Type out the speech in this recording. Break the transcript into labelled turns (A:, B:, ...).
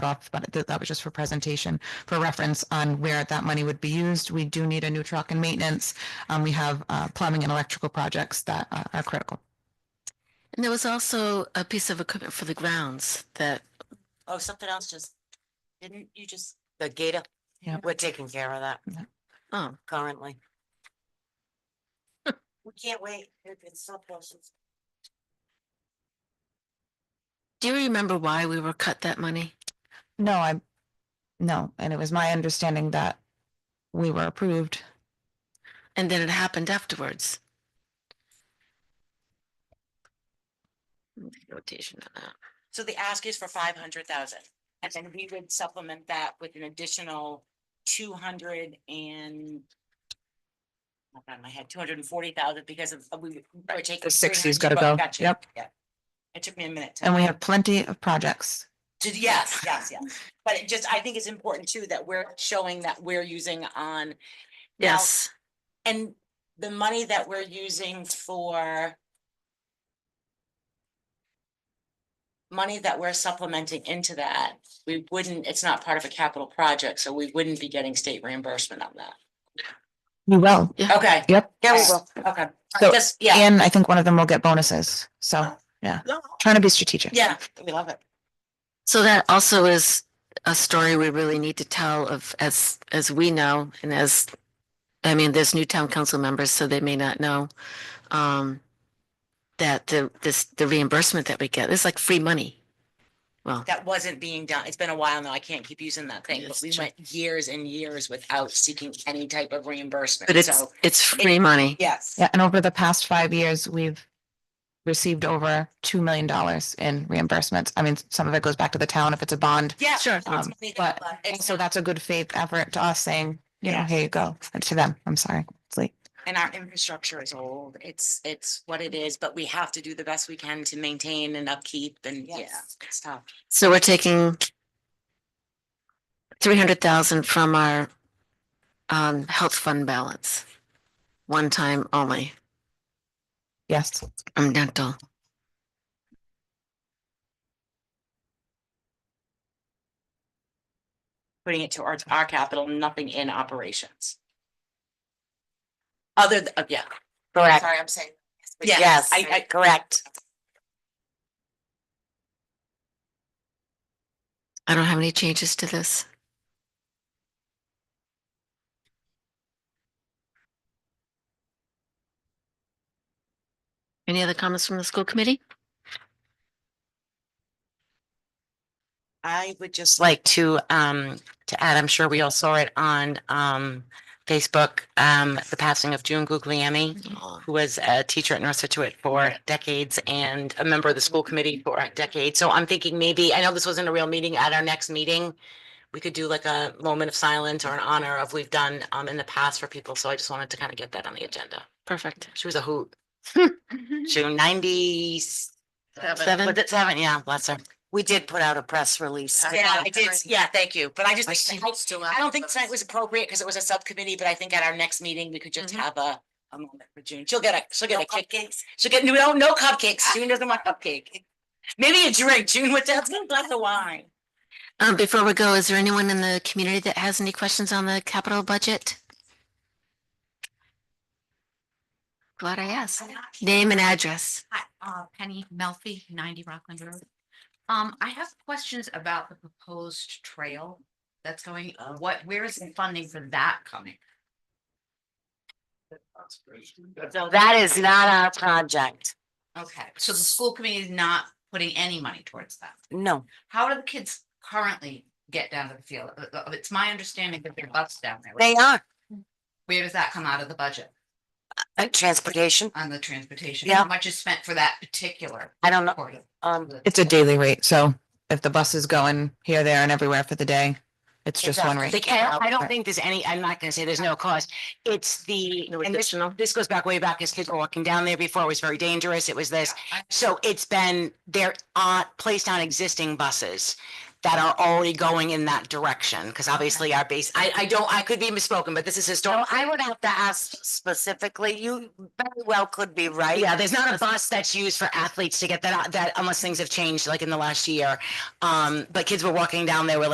A: talked about it, that, that was just for presentation, for reference on where that money would be used. We do need a new truck and maintenance. Um, we have, uh, plumbing and electrical projects that uh, are critical.
B: And there was also a piece of equipment for the grounds that,
C: Oh, something else just, didn't you just, the gator?
A: Yeah.
C: We're taking care of that
B: oh,
C: currently. We can't wait. It- It's so close. It's-
B: do you remember why we were cut that money?
A: No, I, no, and it was my understanding that we were approved.
B: And then it happened afterwards. Notation on that.
D: So the ask is for five hundred thousand, and then we would supplement that with an additional two hundred and. off the top of my head, two hundred and forty thousand because of, we were taking.
A: The 60's
D: 300,
A: gotta
D: but
A: go.
D: gotcha,
A: Yep.
D: yeah. It took me a minute. to-
A: And we have plenty of projects.
D: to- Yes, yes, yes. But it just, I think it's important too that we're showing that we're using on. now,
B: Yes,
D: And the money that we're using for. Money that we're supplementing into that, we wouldn't, it's not part of a capital project, so we wouldn't be getting state reimbursement on that.
A: We will.
D: Okay.
A: Yep.
D: Yeah, we will. Okay.
A: So-
D: Just, yeah.
A: And I think one of them will get bonuses. So trying to be strategic.
D: Yeah, we love it.
B: so that also is a story we really need to tell of, as, as we know, and as, I mean, there's new town council members, so they may not know, um, that the, this, the reimbursement that we get, it's like free money. Well,
D: That wasn't being done. It's been a while now. I can't keep using that thing, but
B: Yes,
D: we
B: true.
D: went years and years without seeking any type of reimbursement.
B: but it's,
D: So,
B: it's free money.
D: yes.
A: Yeah, and over the past five years, we've received over two million dollars in reimbursements. I mean, some of it goes back to the town if it's a bond.
D: Yeah.
B: Sure.
D: it's
A: Um,
D: money that-
A: but,
D: but
A: and
D: it's
A: so
D: not-
A: that's a good faith effort to us saying, you know,
D: Yeah.
A: here you go, and to them, I'm sorry. It's late.
D: And our infrastructure is old. It's, it's what it is, but we have to do the best we can to maintain and upkeep and yeah,
C: Yes.
D: it's tough.
B: So we're taking three hundred thousand from our um health fund balance. One time only,
A: Yes,
B: from dental.
D: Putting it towards our capital, nothing in operations. Other, th- uh, yeah,
C: Correct.
D: sorry, I'm saying.
C: Yes,
D: I, I,
C: correct.
B: I don't have any changes to this. Any other comments from the school committee?
C: I would just like to, um, to add, I'm sure we all saw it on, um, Facebook, um, the passing of June Guglielmi. who was a teacher at North Situate for decades and a member of the school committee for a decade. So I'm thinking maybe, I know this wasn't a real meeting, at our next meeting, we could do like a moment of silence or an honor of we've done um in the past for people. So I just wanted to kind of get that on the agenda.
B: Perfect.
C: She was a hoot.
D: Mm-hmm.
C: She was ninety
B: Seven.
C: Mm. Was it seven? Yeah, bless her. We did put out a press release.
D: yeah, I did, yeah, thank you, but I just, think- I I don't think tonight
B: was.
D: was appropriate because it was a subcommittee, but I think at our next meeting, we could just
B: Mhm.
C: Mm-hmm.
D: have a, a moment for June. She'll get a, she'll get a cupcake. She'll get, no, no cupcakes. June doesn't want cupcake. Maybe a drink, June, with that, a glass of wine.
B: Um, before we go, is there anyone in the community that has any questions on the capital budget? Glad I asked. Name and address.
E: Hi, uh, Penny Melfi, ninety Rockland Road. Um, I have questions about the proposed trail that's going,
C: uh,
E: what, where is the funding for that coming?
C: So that is not our project.
E: Okay, so the school committee is not putting any money towards that.
C: No.
E: How do the kids currently get down to the field? Uh, uh, It's my understanding that there are bus down there.
C: They are.
E: Where does that come out of the budget
C: Uh, Transportation.
E: on the transportation?
C: Yeah.
E: How much is spent for that particular?
C: I don't know.
E: portion?
C: Um,
A: it's a daily rate, so if the bus is going here, there and everywhere for the day, it's just one
C: They
A: rate.
C: can't, I don't
A: Right.
C: think there's any, I'm not gonna say there's no cost. It's the,
B: No
C: and this,
B: additional.
C: this goes back way back, as kids were walking down there before, it was very dangerous, it was this.
E: I-
D: uh,
C: So it's been, they're on, placed on existing buses.
D: that are already going in that direction, because obviously our base, I, I don't, I could be misspoken, but this is
B: So
D: historic.
B: I would have to ask specifically, you very well could be right.
D: Yeah, there's not a bus that's used for athletes to get that, out- that unless things have changed like in the last year. Um, but kids were walking down there with